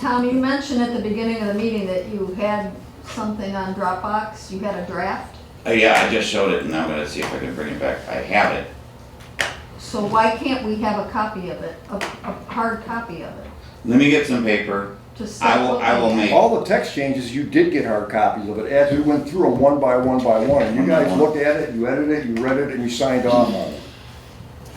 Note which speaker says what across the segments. Speaker 1: Tom, you mentioned at the beginning of the meeting that you had something on Dropbox, you had a draft.
Speaker 2: Uh, yeah, I just showed it and I'm gonna see if I can bring it back. I have it.
Speaker 1: So why can't we have a copy of it, a, a hard copy of it?
Speaker 2: Let me get some paper.
Speaker 1: to start
Speaker 2: I will, I will
Speaker 1: looking at?
Speaker 2: make,
Speaker 3: All the text changes, you did get hard copies of it, as we went through them one by one by one, and you guys looked at it, you edited it, you read it, and you signed on on it.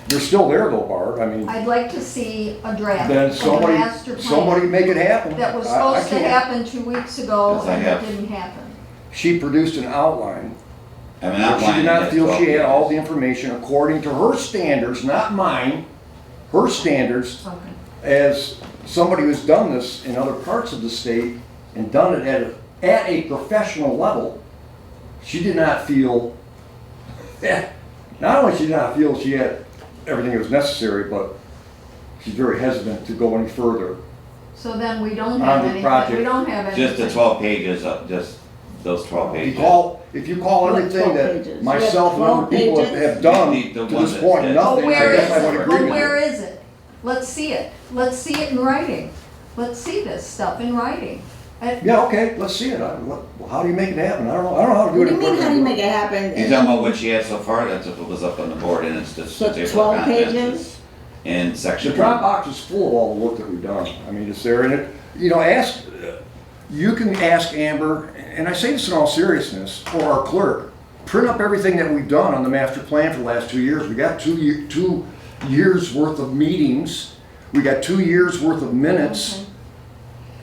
Speaker 3: You're still there though, Barb, I mean,
Speaker 1: I'd like to see a draft
Speaker 3: then
Speaker 1: of the
Speaker 3: somebody,
Speaker 1: master
Speaker 3: somebody
Speaker 1: plan
Speaker 3: make it happen.
Speaker 1: that was
Speaker 3: I- I
Speaker 1: supposed to
Speaker 3: can't.
Speaker 1: happen two weeks ago
Speaker 2: Yes, I
Speaker 1: and
Speaker 2: have.
Speaker 1: it didn't happen.
Speaker 3: She produced an outline,
Speaker 2: I have an
Speaker 3: but
Speaker 2: outline.
Speaker 3: she did
Speaker 2: that's
Speaker 3: not feel she had
Speaker 2: all.
Speaker 3: all the information according to her standards, not mine, her standards
Speaker 1: Okay.
Speaker 3: as somebody who's done this in other parts of the state and done it at a, at a professional level, she did not feel that. Not only she did not feel she had everything that was necessary, but she's very hesitant to go any further.
Speaker 1: So then we don't
Speaker 3: On
Speaker 1: have
Speaker 3: the
Speaker 1: anything,
Speaker 3: project.
Speaker 1: we don't have anything.
Speaker 2: Just the twelve pages of, just those twelve
Speaker 3: If you
Speaker 2: pages.
Speaker 3: call, if you call
Speaker 4: What,
Speaker 3: everything
Speaker 4: 12
Speaker 3: that
Speaker 4: pages?
Speaker 3: myself and other
Speaker 4: You have
Speaker 3: people
Speaker 4: 12
Speaker 3: have
Speaker 4: pages?
Speaker 3: have done
Speaker 2: You need
Speaker 3: to
Speaker 2: the one
Speaker 3: this
Speaker 2: that
Speaker 3: point,
Speaker 2: says-
Speaker 1: But
Speaker 3: nothing, I
Speaker 1: where is
Speaker 3: guess I would
Speaker 1: it?
Speaker 3: agree
Speaker 1: But
Speaker 3: with
Speaker 1: where
Speaker 3: you.
Speaker 1: is it? Let's see it. Let's see it in writing. Let's see this stuff in writing. I-
Speaker 3: Yeah, okay, let's see it. I- what- How do you make it happen? I don't know, I don't know how to do
Speaker 4: What
Speaker 3: it.
Speaker 4: do you
Speaker 3: in
Speaker 4: mean, how do
Speaker 3: person.
Speaker 4: you make it happen?
Speaker 2: You talking about what she had so far? That's if it was up on the board and it's just.
Speaker 4: So
Speaker 2: the table of
Speaker 4: 12
Speaker 2: contents
Speaker 4: pages?
Speaker 2: is In
Speaker 3: The
Speaker 2: section.
Speaker 3: Dropbox is full of all the work that we've done. I mean, it's there, and it, you know, ask, you can ask Amber, and I say this in all seriousness, or our clerk, print up everything that we've done on the master plan for the last two years. We got two, ye- two years worth of meetings, we got two years worth of minutes.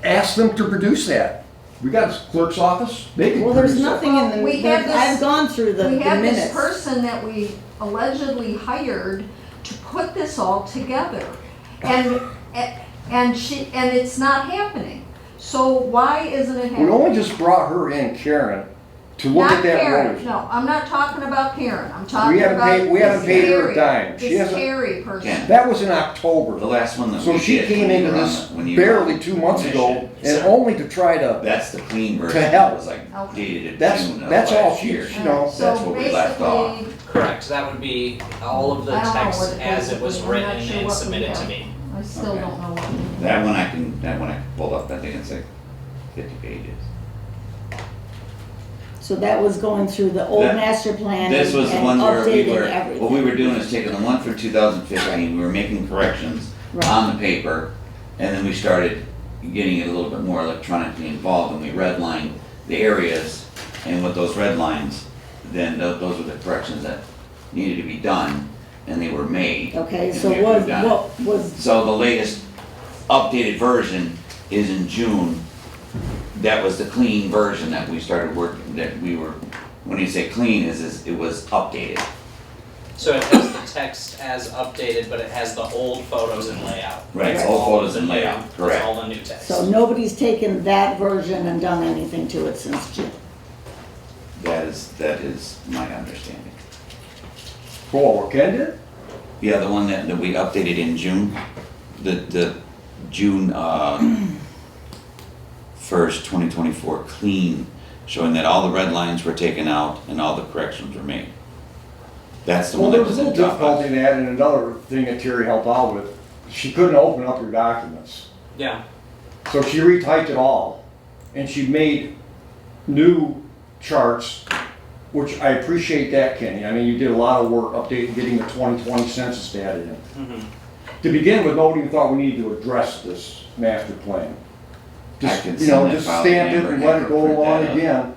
Speaker 3: Ask them to produce that. We got a clerk's office, they can
Speaker 4: Well, there's
Speaker 3: produce that.
Speaker 4: nothing in the,
Speaker 1: We have
Speaker 4: there's- I've
Speaker 1: this-
Speaker 4: gone through the the
Speaker 1: We have this
Speaker 4: minutes.
Speaker 1: person that we allegedly hired to put this all together. And, and she, and it's not happening. So why isn't it
Speaker 3: We only
Speaker 1: happening?
Speaker 3: just brought her in, Karen, to look
Speaker 1: Not
Speaker 3: at that road.
Speaker 1: Karen, no, I'm not talking about Karen. I'm talking
Speaker 3: haven't
Speaker 1: about
Speaker 3: paid- we haven't
Speaker 1: this
Speaker 3: paid her a
Speaker 1: Terry-
Speaker 3: dime. She
Speaker 1: This
Speaker 3: hasn't-
Speaker 1: Terry person.
Speaker 2: Yeah.
Speaker 3: That was in October.
Speaker 2: The last one that we
Speaker 3: So
Speaker 2: did.
Speaker 3: she came
Speaker 2: when you
Speaker 3: into
Speaker 2: were on
Speaker 3: this
Speaker 2: the- when you were on
Speaker 3: barely
Speaker 2: the
Speaker 3: two months ago,
Speaker 2: commission.
Speaker 3: and
Speaker 2: So
Speaker 3: only to try to,
Speaker 2: That's the clean version.
Speaker 3: To help.
Speaker 2: It was like
Speaker 4: Oh.
Speaker 1: Okay.
Speaker 2: dated to
Speaker 3: That's-
Speaker 2: June of
Speaker 3: that's all
Speaker 2: last
Speaker 3: she-
Speaker 2: year.
Speaker 3: she- You know,
Speaker 1: So
Speaker 2: that's what we left off.
Speaker 1: basically,
Speaker 5: Correct, that would be all of the
Speaker 1: I don't know
Speaker 5: text
Speaker 1: what it
Speaker 5: as
Speaker 1: is.
Speaker 5: it was
Speaker 1: I'm not
Speaker 5: written
Speaker 1: sure
Speaker 5: and
Speaker 1: what we
Speaker 5: submitted to
Speaker 1: have.
Speaker 5: me.
Speaker 1: I still
Speaker 2: Okay.
Speaker 1: don't know what. we did.
Speaker 2: That one I can, that one I can pull up. I think it's like fifty pages.
Speaker 4: So that was going through the old
Speaker 2: That-
Speaker 4: master plan and
Speaker 2: This was the one
Speaker 4: and
Speaker 2: where we were,
Speaker 4: updating everything.
Speaker 2: what we were doing is taking the one for two thousand fifteen, we were making corrections
Speaker 4: Right.
Speaker 2: on the paper, and then we started getting it a little bit more electronically involved, and we redlined the areas, and with those red lines, then tho- those were the corrections that needed to be done, and they were made.
Speaker 4: Okay,
Speaker 2: and
Speaker 4: so
Speaker 2: we
Speaker 4: what,
Speaker 2: approved on it.
Speaker 4: what was,
Speaker 2: So the latest updated version is in June. That was the clean version that we started working, that we were, when you say clean, is, is it was updated.
Speaker 5: So it has the text as updated, but it has the old photos and layout.
Speaker 2: Right,
Speaker 5: That's
Speaker 2: old
Speaker 5: all of
Speaker 2: photos
Speaker 5: the
Speaker 2: and
Speaker 5: new-
Speaker 2: layout,
Speaker 5: that's
Speaker 2: correct.
Speaker 5: all the new text.
Speaker 4: so nobody's taken that version and done anything to it since June.
Speaker 2: That is, that is my understanding.
Speaker 3: oh, Ken did?
Speaker 2: Yeah, the one that, that we updated in June, the, the June, uh, first, twenty twenty-four clean, showing that all the red lines were taken out and all the corrections were made. That's the
Speaker 3: Well,
Speaker 2: one
Speaker 3: there
Speaker 2: that
Speaker 3: was
Speaker 2: was
Speaker 3: a
Speaker 2: in
Speaker 3: little
Speaker 2: Dropbox.
Speaker 3: difficulty in that, and another thing that Terry helped out with, she couldn't open up her documents.
Speaker 5: Yeah,
Speaker 3: So she retyped it all, and she made new charts, which I appreciate that, Kenny. I mean, you did a lot of work updating, getting the twenty twenty census data in.
Speaker 5: mhm.
Speaker 3: To begin with, nobody even thought we needed to address this master plan.
Speaker 2: I
Speaker 3: Just,
Speaker 2: can
Speaker 3: you know,
Speaker 2: send that
Speaker 3: just
Speaker 2: file
Speaker 3: stamp
Speaker 2: to
Speaker 3: it
Speaker 2: Amber
Speaker 3: and
Speaker 2: and
Speaker 3: let it
Speaker 2: have
Speaker 3: go
Speaker 2: her print
Speaker 3: along
Speaker 2: that up.
Speaker 3: again.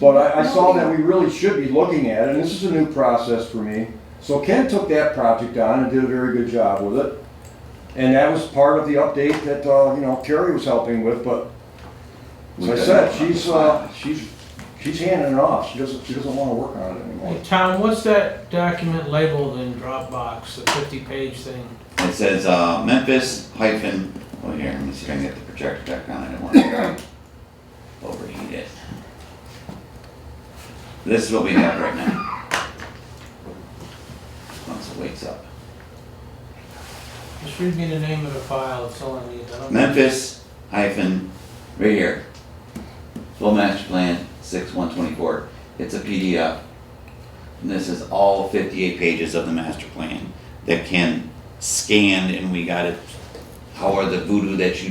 Speaker 3: But I, I saw that we really should be looking at it, and this is a new process for me. So Ken took that project on and did a very good job with it. And that was part of the update that, uh, you know, Carrie was helping with, but as
Speaker 2: We
Speaker 3: I
Speaker 2: got
Speaker 3: said,
Speaker 2: nothing on
Speaker 3: she's,
Speaker 2: the file.
Speaker 3: uh, she's, she's handing it off. She doesn't, she doesn't wanna work on it anymore.
Speaker 6: Hey, Tom, what's that document labeled in Dropbox, the fifty-page thing?
Speaker 2: It says uh, Memphis hyphen, oh here, let me see if I can get the projector back on, I don't want to overheat it. This is what we have right now. Once it wakes up.
Speaker 6: Just read me the name of the file, it's all I need. I don't-
Speaker 2: Memphis hyphen, right here. Full master plan, six one twenty-four. It's a PDF. And this is all fifty-eight pages of the master plan that can scan and we got it. However, the voodoo that you